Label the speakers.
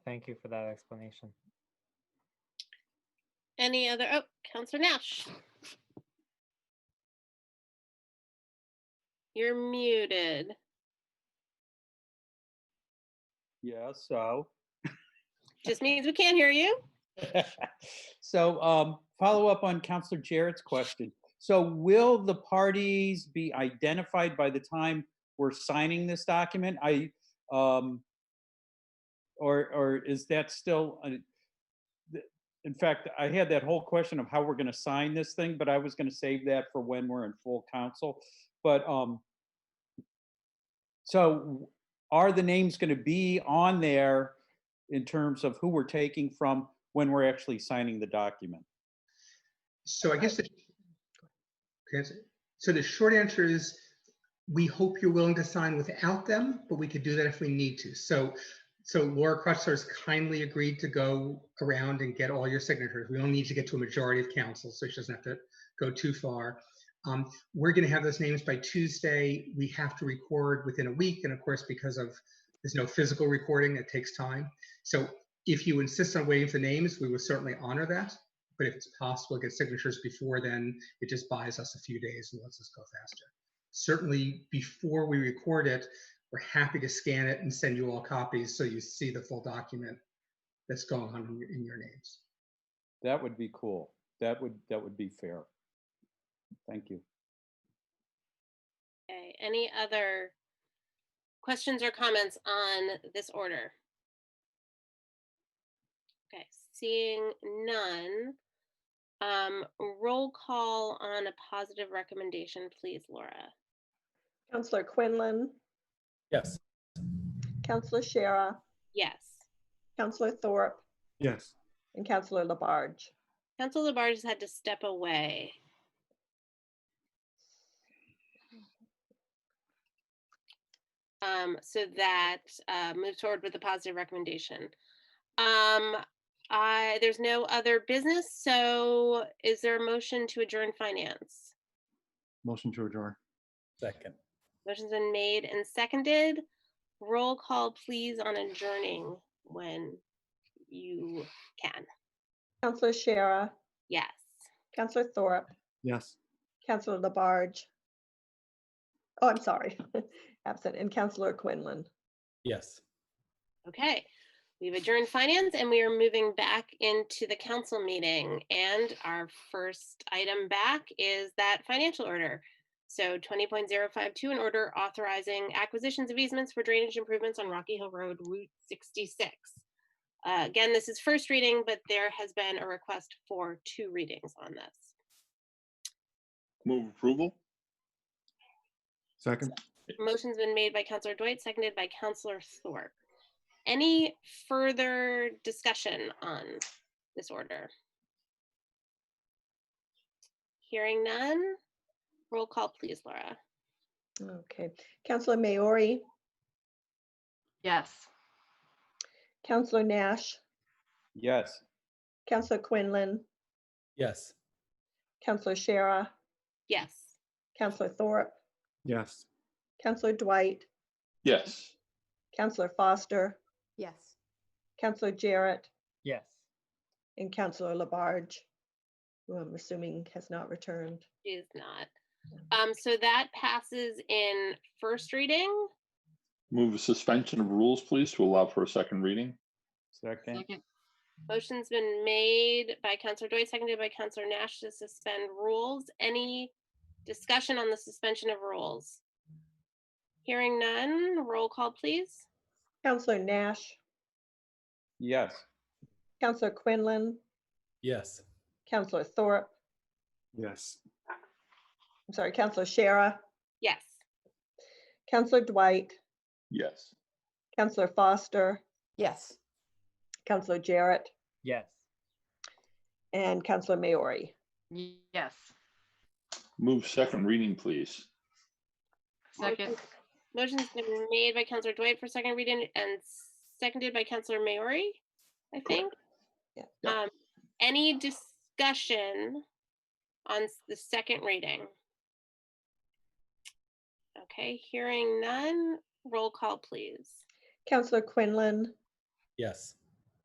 Speaker 1: Thank you for that explanation.
Speaker 2: Any other, oh, Counselor Nash. You're muted.
Speaker 3: Yeah, so.
Speaker 2: Just means we can't hear you.
Speaker 3: So um, follow up on Counselor Jarrett's question. So will the parties be identified by the time we're signing this document? I, um, or, or is that still, uh, th- in fact, I had that whole question of how we're going to sign this thing, but I was going to save that for when we're in full council. But um, so are the names going to be on there in terms of who we're taking from when we're actually signing the document.
Speaker 4: So I guess the, okay, so- so the short answer is, we hope you're willing to sign without them, but we could do that if we need to. So, so Laura Crutchler's kindly agreed to go around and get all your signatures. We only need to get to a majority of council, so she doesn't have to go too far. Um, We're going to have those names by Tuesday. We have to record within a week, and of course, because of, there's no physical recording, it takes time. So if you insist on waiting for names, we will certainly honor that. But if it's possible, to get signatures before then, it just buys us a few days and lets us go faster. Certainly, before we record it, we're happy to scan it and send you all copies so you see the full document that's going on in your, in your names.
Speaker 3: That would be cool. That would, that would be fair. Thank you.
Speaker 2: Okay, any other questions or comments on this order? Okay, seeing none. Um, roll call on a positive recommendation, please, Laura.
Speaker 5: Counselor Quinlan,
Speaker 6: Yes.
Speaker 5: Counselor Shara,
Speaker 2: Yes.
Speaker 5: Counselor Thorpe,
Speaker 6: Yes.
Speaker 5: and Counselor Labarge.
Speaker 2: Council Labarge has had to step away. Um, so that, uh, moves forward with a positive recommendation. Um, I, there's no other business, so is there a motion to adjourn finance?
Speaker 6: Motion to adjourn. Second.
Speaker 2: Motion's been made and seconded. Roll call, please, on adjourning when you can.
Speaker 5: Counselor Shara,
Speaker 2: Yes.
Speaker 5: Counselor Thorpe,
Speaker 6: Yes.
Speaker 5: Counselor Labarge. Oh, I'm sorry, absent, and Counselor Quinlan.
Speaker 6: Yes.
Speaker 2: Okay, we've adjourned finance and we are moving back into the council meeting. And our first item back is that financial order. So twenty point zero five two, an order authorizing acquisitions of easements for drainage improvements on Rocky Hill Road Route sixty-six. Uh, Again, this is first reading, but there has been a request for two readings on this.
Speaker 7: Move approval?
Speaker 6: Second.
Speaker 2: Motion's been made by Counselor Dwight, seconded by Counselor Thorpe. Any further discussion on this order? Hearing none, roll call please, Laura.
Speaker 5: Okay, Counselor Maori,
Speaker 8: Yes.
Speaker 5: Counselor Nash,
Speaker 3: Yes.
Speaker 5: Counselor Quinlan,
Speaker 6: Yes.
Speaker 5: Counselor Shara,
Speaker 2: Yes.
Speaker 5: Counselor Thorpe,
Speaker 6: Yes.
Speaker 5: Counselor Dwight,
Speaker 7: Yes.
Speaker 5: Counselor Foster,
Speaker 8: Yes.
Speaker 5: Counselor Jarrett,
Speaker 1: Yes.
Speaker 5: and Counselor Labarge, who I'm assuming has not returned.
Speaker 2: Is not. Um, so that passes in first reading.
Speaker 7: Move a suspension of rules, please, to allow for a second reading?
Speaker 3: Second.
Speaker 8: Second.
Speaker 2: Motion's been made by Counselor Dwight, seconded by Counselor Nash to suspend rules. Any discussion on the suspension of rules? Hearing none, roll call, please.
Speaker 5: Counselor Nash,
Speaker 3: Yes.
Speaker 5: Counselor Quinlan,
Speaker 6: Yes.
Speaker 5: Counselor Thorpe,
Speaker 6: Yes.
Speaker 5: I'm sorry, Counselor Shara,
Speaker 2: Yes.
Speaker 5: Counselor Dwight,
Speaker 7: Yes.
Speaker 5: Counselor Foster,
Speaker 8: Yes.
Speaker 5: Counselor Jarrett,
Speaker 1: Yes.
Speaker 5: and Counselor Maori.
Speaker 8: Y- Yes.
Speaker 7: Move second reading, please?
Speaker 8: Second.
Speaker 2: Motion's been made by Counselor Dwight for second reading and seconded by Counselor Maori, I think.
Speaker 5: Yeah.
Speaker 7: Yeah.
Speaker 2: Um, any discussion on s- the second reading? Okay, hearing none, roll call, please.
Speaker 5: Counselor Quinlan,
Speaker 6: Yes.